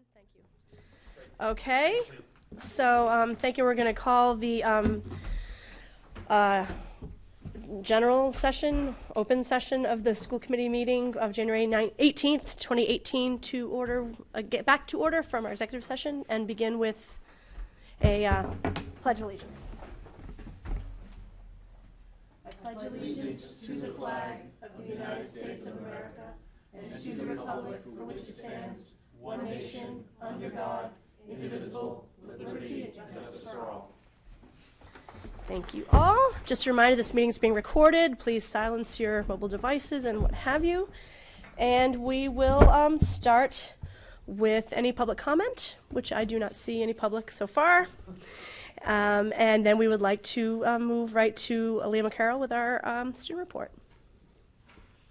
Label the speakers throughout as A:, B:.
A: you. Okay, so, um, thank you, we're gonna call the, um, uh, general session, open session of the school committee meeting of January nine, eighteenth, twenty eighteen to order, uh, get back to order from our executive session and begin with a, uh, pledge of allegiance. Thank you all. Just a reminder, this meeting is being recorded. Please silence your mobile devices and what have you. And we will um, start with any public comment, which I do not see any public so far. Um, And then we would like to um, move right to Leah McCarroll with our um, student report.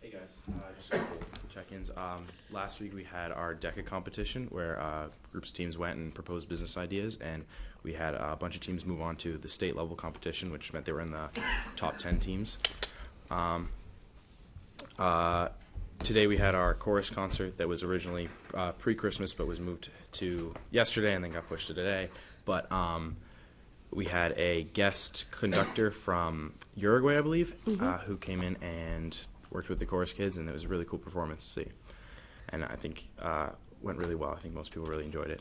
B: Hey guys, uh, just a couple check-ins. Um, last week we had our DECA competition where uh, groups teams went and proposed business ideas, and we had uh, a bunch of teams move on to the state level competition, which meant they were in the top ten teams. Um, uh, today we had our chorus concert that was originally uh, pre-Christmas but was moved to yesterday and then got pushed to today. But um, we had a guest conductor from Uruguay, I believe, uh, who came in and worked with the chorus kids, and it was a really cool performance to see. And I think uh, went really well. I think most people really enjoyed it.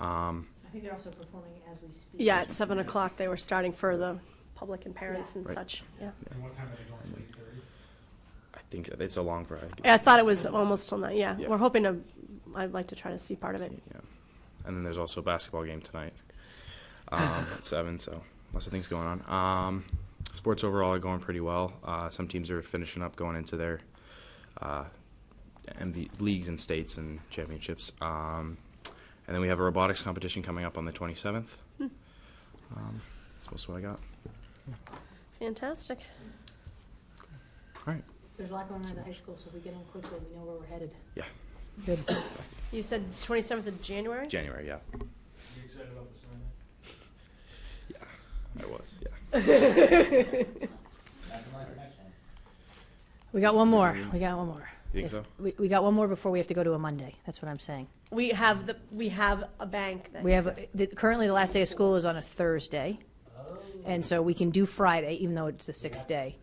B: Um,
C: I think they're also performing as we speak.
A: Yeah, at 7 o'clock, they were starting for the public and parents
C: Yeah.
A: and
B: Right.
A: such, yeah.
D: And what time are they going, eight thirty?
B: I think it's a long ride.
A: I thought it was almost till nine, yeah.
B: Yeah.
A: We're hoping to, I'd like to try to see part of it.
B: Yeah. And then there's also a basketball game tonight um, at seven. So lots of things going on. Um, sports overall are going pretty well. Uh, some teams are finishing up going into their uh, MV leagues and states and championships. Um, and then we have a robotics competition coming up on the 27th.
A: Hmm.
B: Um, that's most of what I got.
A: Fantastic.
B: All right.
C: There's a lot going on at the high school, so if we get in quickly, we know where we're headed.
B: Yeah.
C: Good.
A: You said 27th of January?
B: January. Yeah.
D: You excited about this one?
B: I was. Yeah.
C: We got one
B: Is it
C: more.
B: green?
C: We got one more.
B: You think
C: If-
B: so?
C: We, we got one more before we have to go to a Monday. That's what I'm saying.
A: We have the, we have a bank that.
C: We have, the- currently, the last day of school is on a Thursday. And so we can do Friday, even though it's the sixth day.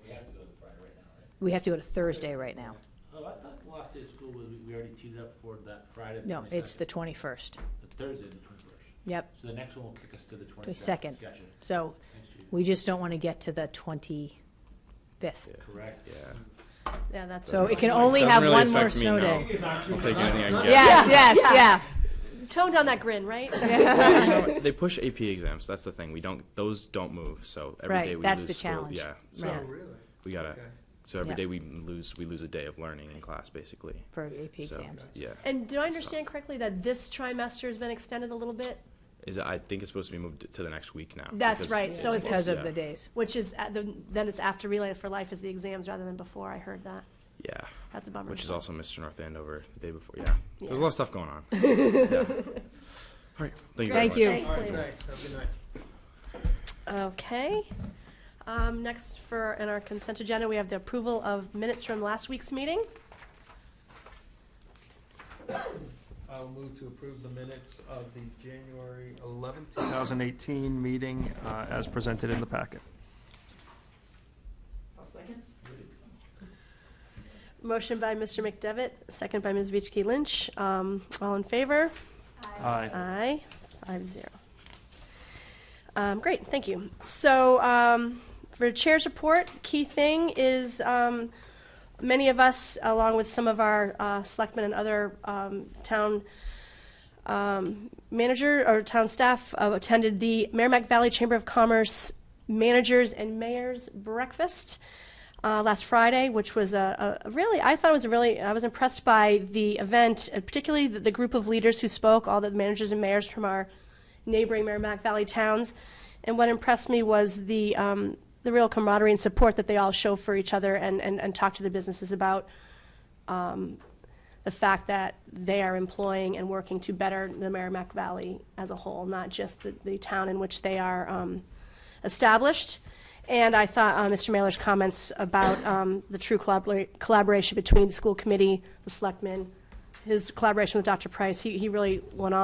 C: We have to go to Thursday right now.
E: Oh, I thought the last day of school was, we already teed it up for that Friday.
C: No, it's the
E: 22nd.
C: 21st.
E: The Thursday, the twenty-first.
C: Yep.
E: So the next one will kick us to the twenty-second.
C: 22nd.
E: Gotcha.
C: So
E: Next year.
C: we just don't want to get to the 25th.
E: Correct.
B: Yeah.
A: Yeah, that's.
C: So it can
B: Doesn't
C: only have
B: really
C: one more
B: affect me,
C: snow
B: no.
C: day.
B: I'll take anything I can get.
C: Yes, yes, yeah.
A: Tone down that grin, right?
B: Well, you know what? they push AP exams. That's the thing. We don't; those don't move. So every day
C: Right,
B: we
C: that's
B: lose
C: the
B: school-
C: challenge.
B: Yeah. So
C: Right.
D: Oh, really?
B: we gotta.
D: Okay.
B: So every
C: Yeah.
B: day we lose, we lose a day of learning in class, basically.
C: for AP
B: So,
C: exams.
B: Yeah.
A: And do I understand correctly that this trimester has been extended a little bit?
B: Is it, I think it's supposed to be moved to the next week now.
A: That's
B: because-
A: right, so it's-
C: Because of
B: yeah.
C: the days.
A: Which is, at the- then it's after Relay for Life is the exams rather than before. I heard that.
B: Yeah,
A: That's a bummer.
B: which is also Mr. North Andover the day before. Yeah. There's
A: Yeah.
B: a lot of stuff going on. Yeah. All right. Thank you. very
C: Thank
B: much.
C: you.
A: Thanks,
D: All right,
A: Liam.
D: thanks, have a good night.
A: Okay. Um, next for, in our consent agenda, we have the approval of minutes from last week's meeting.
D: I'll move to approve the minutes of the January eleventh, two thousand eighteen meeting, uh, as presented in the packet.
A: Motion by Mr. McDevitt, second by Ms. Vichke Lynch. Um, all in favor?
D: Aye.
A: Aye, five zero. Um, great, thank you. So, um, for chair's report, key thing is, um, many of us, along with some of our, uh, selectmen and other, um, town, um, manager or town staff uh, attended the Merrimack Valley Chamber of Commerce Managers and Mayors Breakfast uh, last Friday, which was a, a a really, I thought it was a really, I was impressed by the event, uh, particularly the, the group of leaders who spoke, all the managers and mayors from our neighboring Merrimack Valley towns. And what impressed me was the, um, the real camaraderie and support that they all show for each other and, and, and talk to the businesses about the fact that they are employing and working to better the Merrimack Valley as a whole, not just the, the town in which they are um, established. And I thought uh, Mr. Mailer's comments about um, the true collabora- collaboration between the school committee, the selectmen, his collaboration with Dr. Price, he, he really went on.